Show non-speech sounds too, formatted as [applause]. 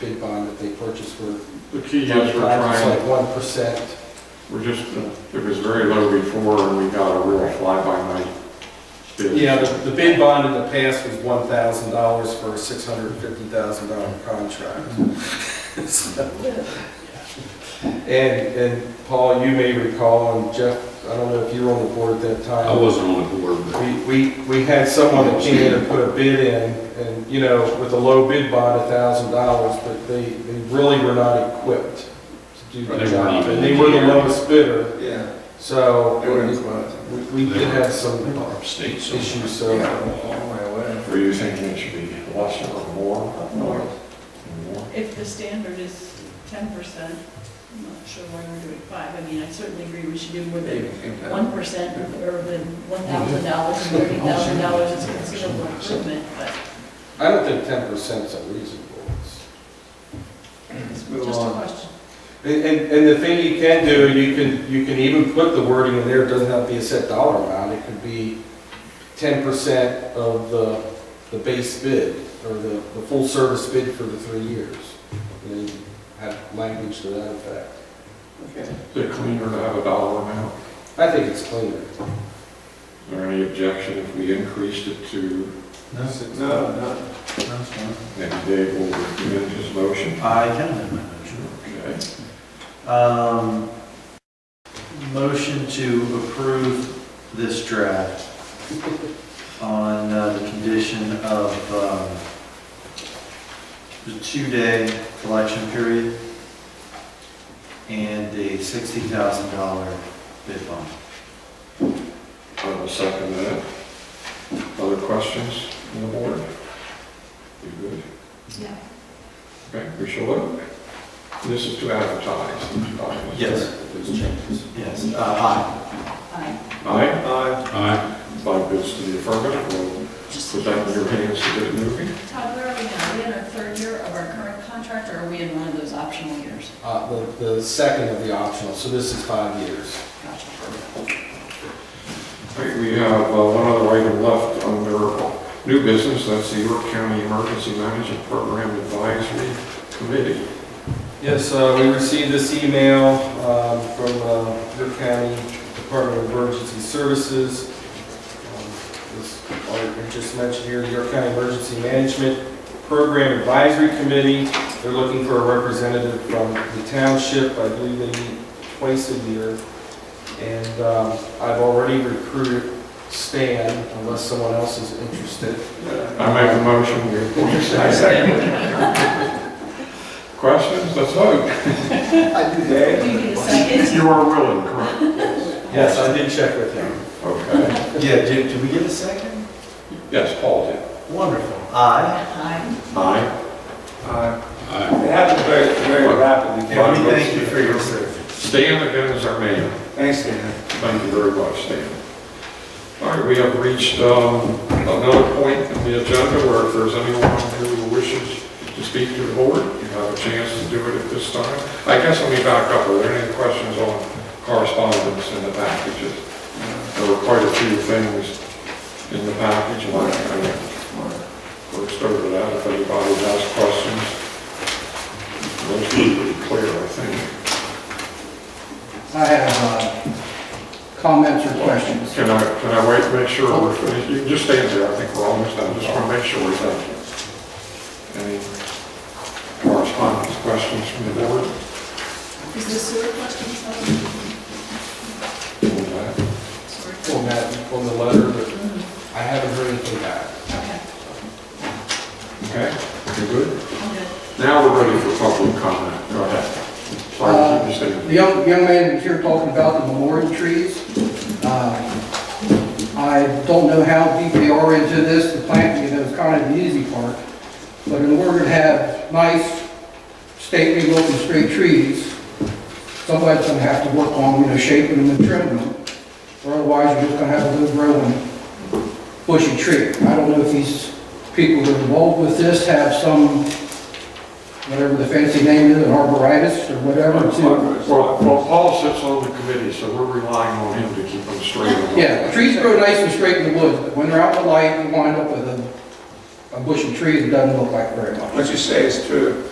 bid bond that they purchased for. The key is we're trying, It's like one percent. we're just, it was very low before and we got a real fly-by-night bid. Yeah, the, the bid bond in the past was one thousand dollars for a six hundred and fifty thousand dollar contract. [laughs] So- And, and Paul, you may recall, and Jeff, I don't know if you were on the board at that time. I wasn't on the board, but We, we, we had someone that came in and put a bid in, and, you know, with a low bid bond, a thousand dollars, but they, they really were not equipped to They do the weren't job. even And they were the engineered. lowest bidder, Yeah. so They weren't we, we did have some we're upstate, so. issues, so. All my way. Were you thinking it should be less or more? More. More? If the standard is ten percent, I'm not sure why we're doing five. I mean, I certainly agree we should do more They than even came down. one percent or than one thousand dollars and thirty thousand dollars is considerable improvement, but I don't think ten percent's unreasonable. It's- it's move just a on. question. And, and, and the thing you can do, you can, you can even put the wording in there, it doesn't have to be a set dollar amount, it could be ten percent of the, the base bid, or the, the full service bid for the three years. And have language to that effect. Okay. Is it cleaner to have a dollar amount? I think it's cleaner. Is there any objection if we increased it to, No, no. maybe Dave will amend his motion? I can amend my motion. Okay. Um, Motion to approve this draft on uh, the condition of um, the two-day collection period and a $60,000 bid bond. I will second that. Other questions on the board? You good? Yeah. Okay, we shall look. This is to advertise. Yes. Those changes. Yes, uh, aye. I Aye, Aye. Aye. five bids to the affirmative, we'll just. put that in your hands to get it moving. Todd, where are we now? Are we in our third year of our current contract or are we in one of those optional years? Uh, the, the second of the optional, so this is five years. Gotcha. All right, we have uh, one other item left under new business, that's the York County Emergency Management Program Advisory Committee. Yes, uh, we received this email um, from uh, York County Department of Emergency Services. Um, This, like we just mentioned here, the York County Emergency Management Program Advisory Committee. They're looking for a representative from the township. I believe they meet twice a year. And um, I've already recruited Stan, unless someone else is interested. I make a motion, we appoint second. Questions, let's vote. I do that. Do you need a second? You are willing, correct? Yes, I did check with him. Okay, Yeah, did, did we get a second? yes, Paul did. Wonderful. Aye. Aye. Aye. Aye. Aye. It happened very, very rapidly. Bonnie, thank you for your service. Stan again is our mayor. Thanks, Dan. Thank you very much, Stan. All right, we have reached um, another point in the agenda where if there's anyone who wishes to speak to the board, you have a chance to do it at this time. I guess let me back up. Are there any questions on correspondence in the packages? There were quite a few things in the package, and I kind of worked over that. If anybody has questions, those were pretty clear, I think. I have uh, comments or questions. Can I, can I wait, to make sure we're finished? You can just stand there, I think we're almost done, just want to make sure we're done. Any correspondence, questions from the board? Is the sewer question something? Sewer? Mm-hmm. On that, on the letter, but I haven't heard anything back. Okay, Okay, you good? I'm good. Now we're ready for public comment, go ahead. Sorry, keep you The standing. young, young man was here talking about the memorial trees. Uh, I don't know how deep they are into this, the planting, you know, it's kind of the easy part. But in order to have nice, stately looking straight trees, somebody's gonna have to work on, you know, shaping them and trimming them. Or otherwise, you're just gonna have a little growing bushy tree. I don't know if these people that are involved with this have some, whatever the fancy name is, an arboritis or Uh, whatever to Well, well, Paul sits on the committee, so we're relying on him to keep them straight. Yeah, trees grow nice and straight in the woods, but when they're out in the light, you wind up with a, a bushy tree that doesn't look like very much. What you say is true.